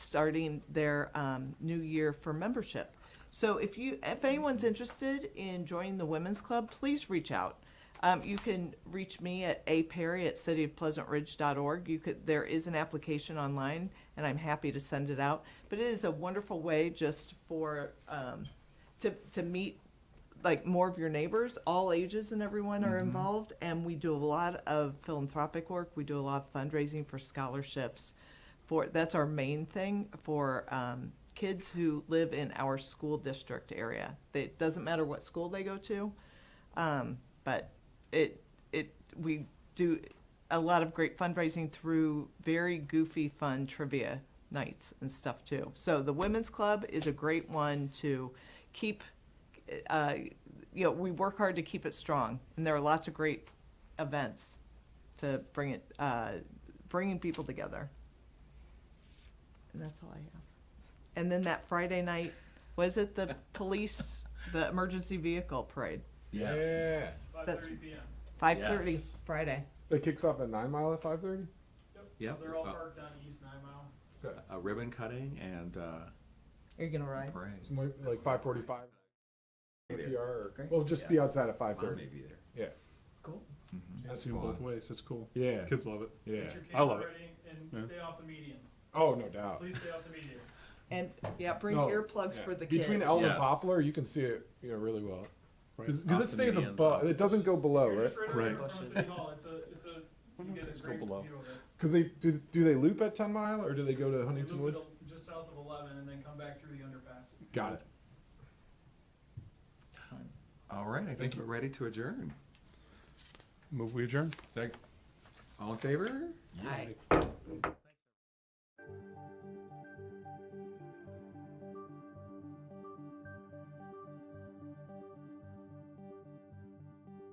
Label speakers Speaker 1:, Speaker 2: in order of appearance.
Speaker 1: starting their um, new year for membership. So if you, if anyone's interested in joining the women's club, please reach out. Um, you can reach me at aperry at cityofpleasantridge.org. You could, there is an application online, and I'm happy to send it out. But it is a wonderful way just for um, to to meet like more of your neighbors, all ages and everyone are involved. And we do a lot of philanthropic work. We do a lot of fundraising for scholarships. For that's our main thing for um, kids who live in our school district area. It doesn't matter what school they go to, um, but it it we do a lot of great fundraising through very goofy fun trivia nights and stuff too. So the women's club is a great one to keep uh, you know, we work hard to keep it strong, and there are lots of great events to bring it, uh, bringing people together. And that's all I have. And then that Friday night, was it the police, the emergency vehicle parade?
Speaker 2: Yes.
Speaker 3: Five
Speaker 1: That's-
Speaker 3: thirty PM.
Speaker 1: Five thirty
Speaker 2: Yes.
Speaker 1: Friday.
Speaker 4: It kicks off at Nine Mile at five thirty.
Speaker 2: Yep.
Speaker 3: They're all
Speaker 4: Oh.
Speaker 2: Uh,
Speaker 3: parked on East Nine Mile.
Speaker 2: A ribbon cutting and uh,
Speaker 1: Are you gonna ride?
Speaker 5: Parade.
Speaker 4: like five forty-five. PR. Or,
Speaker 1: Great.
Speaker 4: we'll just be outside at five
Speaker 5: I may
Speaker 4: thirty.
Speaker 5: be there.
Speaker 4: Yeah,
Speaker 1: Cool.
Speaker 2: Mm-hmm.
Speaker 4: that's
Speaker 6: Do 'em both
Speaker 4: fun.
Speaker 6: ways. It's cool.
Speaker 4: Yeah,
Speaker 6: Kids love it.
Speaker 4: yeah.
Speaker 3: Get your
Speaker 6: I love
Speaker 3: camera
Speaker 6: it.
Speaker 3: ready
Speaker 6: Yeah.
Speaker 3: and stay off the medians.
Speaker 4: Oh, no doubt.
Speaker 3: Please stay off the medians.
Speaker 1: And, yeah, bring
Speaker 4: No,
Speaker 1: earplugs
Speaker 4: Yeah.
Speaker 1: for the kids.
Speaker 4: Between Elm and
Speaker 2: Yes.
Speaker 4: Poplar, you can see it, you know, really well. Because
Speaker 2: Off
Speaker 4: it
Speaker 2: the
Speaker 4: stays
Speaker 2: medians, off
Speaker 4: above, it doesn't go below,
Speaker 3: You're
Speaker 4: right?
Speaker 3: just right over
Speaker 1: Right.
Speaker 3: from City Hall. It's a, it's a, you get a
Speaker 6: Just go
Speaker 3: great view
Speaker 6: below.
Speaker 3: of it.
Speaker 4: Because they do. Do they loop at Ten Mile or do they go to
Speaker 3: You
Speaker 4: Huntington
Speaker 3: loop
Speaker 4: Woods?
Speaker 3: it up Just south of eleven and then come back through the underpass.
Speaker 4: Got it.
Speaker 5: All right, I think we're ready to adjourn.
Speaker 6: Move we adjourn.
Speaker 5: All in favor?
Speaker 1: Hi.